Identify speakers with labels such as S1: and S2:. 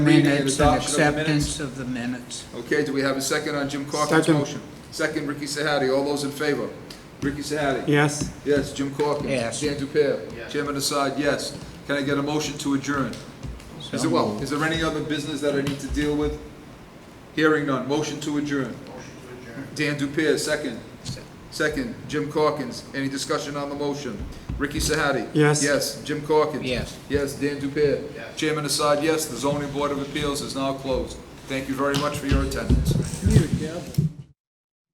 S1: Reading and
S2: Minutes and
S1: adoption of the
S2: acceptance of the minutes.
S1: Okay, do we have a second on Jim Corkins'
S3: Second.
S1: motion? Second, Ricky Sahadi, all those in favor? Ricky Sahadi?
S3: Yes,
S1: Yes, Jim Corkins?
S2: Yes.
S1: Dan Dupere? Chairman Assad, yes. Can I get a motion to adjourn? Is
S2: So
S1: there, well, is there any other business that I need to deal with? Hearing none, motion to adjourn. Dan Dupere, second. Second, Jim Corkins, any discussion on the motion? Ricky Sahadi?
S3: Yes.
S1: Yes, Jim Corkins?
S2: Yes.
S1: Yes, Dan Dupere? Chairman Assad, yes, the zoning board of appeals is now closed. Thank you very much for your attendance.
S2: You're a devil.